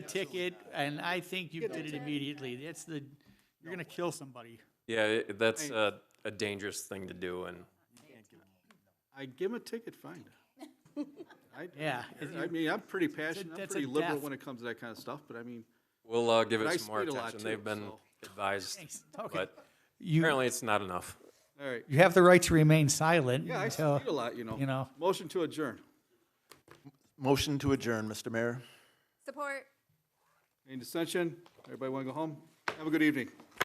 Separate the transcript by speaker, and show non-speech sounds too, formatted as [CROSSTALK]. Speaker 1: ticket, and I think you did it immediately. That's the, you're gonna kill somebody.
Speaker 2: Yeah, it- that's a, a dangerous thing to do, and
Speaker 3: I give him a ticket, fine. I,
Speaker 1: Yeah.
Speaker 3: I mean, I'm pretty passionate, I'm
Speaker 1: that's a
Speaker 3: pretty liberal
Speaker 1: death.
Speaker 3: when it comes to that kind of stuff, but I mean,
Speaker 2: we'll uh, give
Speaker 3: But I
Speaker 2: it some more
Speaker 3: speed a lot
Speaker 2: attention. They've
Speaker 3: too,
Speaker 2: been
Speaker 3: so. [LAUGHS]
Speaker 2: advised,
Speaker 1: Okay.
Speaker 2: but
Speaker 1: You,
Speaker 2: apparently it's not enough.
Speaker 3: all right.
Speaker 1: you have the right to remain silent
Speaker 3: Yeah, I
Speaker 1: until-
Speaker 3: speed a lot, you know.
Speaker 1: you know.
Speaker 3: Motion to adjourn.
Speaker 4: Motion to adjourn, Mr. Mayor.
Speaker 5: Support.
Speaker 3: Any dissension? Everybody want to go home? Have a good evening.